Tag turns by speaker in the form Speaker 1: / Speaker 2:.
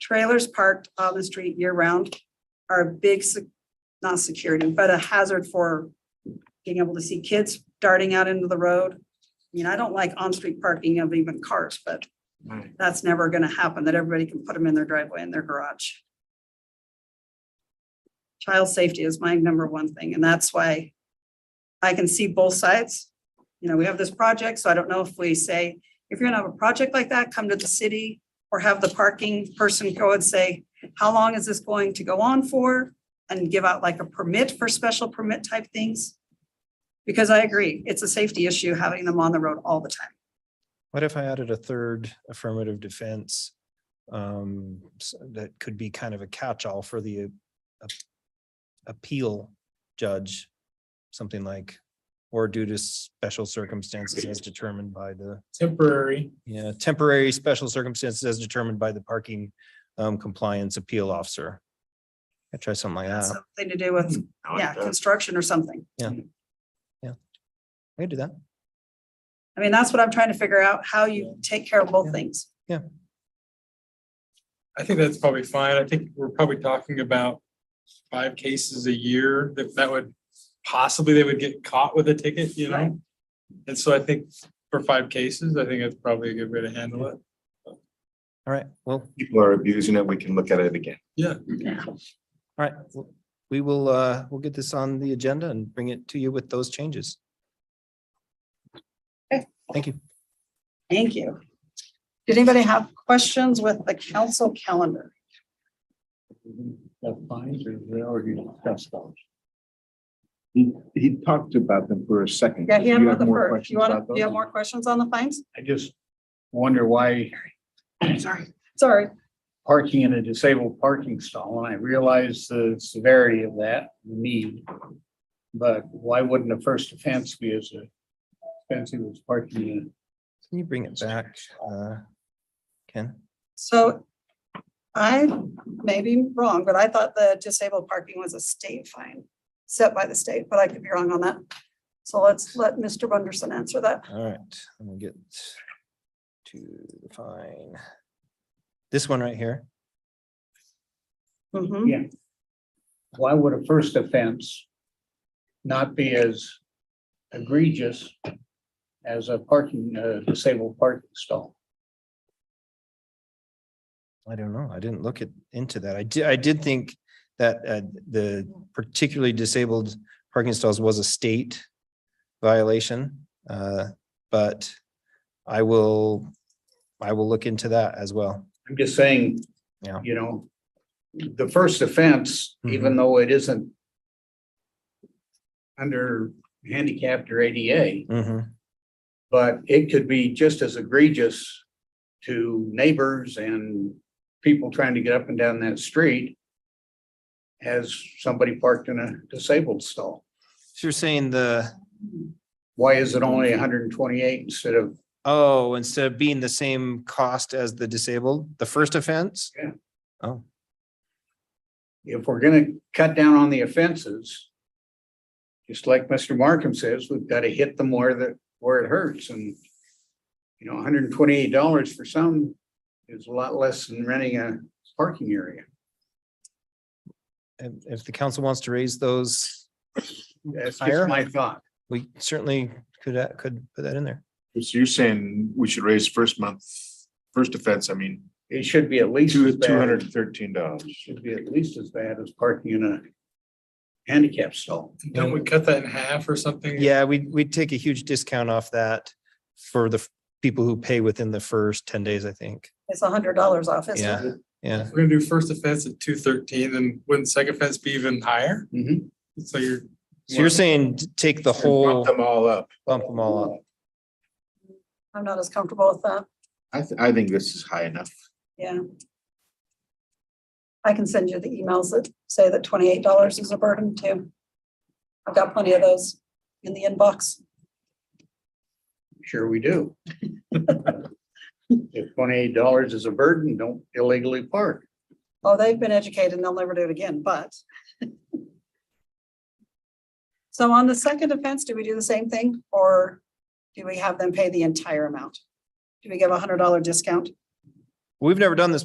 Speaker 1: trailers parked on the street year round are a big, se- not security, but a hazard for being able to see kids darting out into the road. I mean, I don't like on-street parking of even cars, but
Speaker 2: Right.
Speaker 1: that's never gonna happen, that everybody can put them in their driveway and their garage. Child safety is my number one thing, and that's why I can see both sides. You know, we have this project, so I don't know if we say, if you're gonna have a project like that, come to the city or have the parking person go and say, how long is this going to go on for? And give out like a permit for special permit type things. Because I agree, it's a safety issue having them on the road all the time.
Speaker 2: What if I added a third affirmative defense? Um, s- that could be kind of a catch-all for the uh, ap- appeal judge. Something like, or due to special circumstances as determined by the,
Speaker 3: temporary.
Speaker 2: yeah, temporary special circumstances as determined by the parking um, compliance appeal officer. I try something like that.
Speaker 1: Something to do with,
Speaker 4: Oh,
Speaker 1: yeah, construction or something.
Speaker 2: I could do that.
Speaker 1: I mean, that's what I'm trying to figure out, how you take care of both
Speaker 2: Yeah.
Speaker 1: things.
Speaker 3: I think that's probably fine. I think we're probably talking about five cases a year that that would possibly they would get caught with a ticket, you
Speaker 1: Right.
Speaker 3: know? And so I think for five cases, I think that's probably a good way to handle it.
Speaker 2: All right, well,
Speaker 4: people are abusing it, we can look at it again.
Speaker 1: Yeah.
Speaker 2: all right. w- We will, uh, we'll get this on the agenda and bring it to you with those changes.
Speaker 1: Okay.
Speaker 2: Thank you.
Speaker 1: Thank you. Did anybody have questions with the council calendar?
Speaker 5: That fines or they already discussed those?
Speaker 4: He, he talked about them for a second.
Speaker 1: Yeah, he had
Speaker 4: You
Speaker 1: one of
Speaker 4: have
Speaker 1: the
Speaker 4: more
Speaker 1: first.
Speaker 4: questions
Speaker 1: You want
Speaker 4: about
Speaker 1: to, you have
Speaker 4: those?
Speaker 1: more questions on the fines?
Speaker 5: I just wonder why
Speaker 1: Sorry, sorry.
Speaker 5: parking in a disabled parking stall, and I realize the severity of that need. But why wouldn't a first offense be as offensive as parking in?
Speaker 2: Can you bring it back, uh, Ken?
Speaker 1: So I may be wrong, but I thought the disabled parking was a state fine set by the state, but I could be wrong on that. So let's let Mr. Bunderson answer that.
Speaker 2: All right, let me get to the fine. This one right here.
Speaker 5: Mm-hmm.
Speaker 1: Mhm.
Speaker 5: Why would a first offense not be as egregious as a parking, uh, disabled parking stall?
Speaker 2: I don't know. I didn't look at, into that. I did, I did think that, uh, the particularly disabled parking stalls was a state violation, uh, but I will, I will look into that as well.
Speaker 5: I'm just saying.
Speaker 2: Yeah.
Speaker 5: You know, the first offense, even though it isn't. Under handicapped or ADA,
Speaker 2: Mhm.
Speaker 5: but it could be just as egregious. To neighbors and people trying to get up and down that street. As somebody parked in a disabled stall.
Speaker 2: So you're saying the,
Speaker 5: Why is it only hundred and twenty-eight instead of,
Speaker 2: oh, instead of being the same cost as the disabled, the first offense?
Speaker 5: Yeah.
Speaker 2: Oh,
Speaker 5: if we're gonna cut down on the offenses? Just like Mr. Markham says, we've got to hit them where the, where it hurts and. You know, hundred and twenty-eight dollars for some is a lot less than renting a parking area.
Speaker 2: and if the council wants to raise those,
Speaker 5: That's
Speaker 2: Higher?
Speaker 5: just my thought.
Speaker 2: we certainly could, uh, could put that in there.
Speaker 4: So you're saying we should raise first month, first offense, I mean,
Speaker 5: It should be at least. as
Speaker 4: two,
Speaker 5: bad-
Speaker 4: two hundred and thirteen dollars.
Speaker 5: Should be at least as bad as parking in a handicap stall.
Speaker 3: Don't we cut that in half or something?
Speaker 2: Yeah, we, we'd take a huge discount off that for the f- people who pay within the first ten days, I think.
Speaker 1: It's a hundred dollars off, isn't it?
Speaker 2: Yeah, yeah.
Speaker 3: If We're gonna do first offense at two thirteen, then wouldn't second offense be even higher?
Speaker 5: Mhm.
Speaker 3: So you're.
Speaker 2: So you're saying t- take the whole,
Speaker 4: Them all up.
Speaker 2: bump them all up.
Speaker 1: I'm not as comfortable with that.
Speaker 4: I, th- I think this is high enough.
Speaker 1: Yeah. I can send you the emails that say that twenty-eight dollars is a burden too. I've got plenty of those in the inbox.
Speaker 5: Sure we do. If twenty-eight dollars is a burden, don't illegally park.
Speaker 1: Oh, they've been educated and they'll never do it again, but. So on the second offense, do we do the same thing or do we have them pay the entire amount? Do we give a hundred dollar discount?
Speaker 2: We've never done this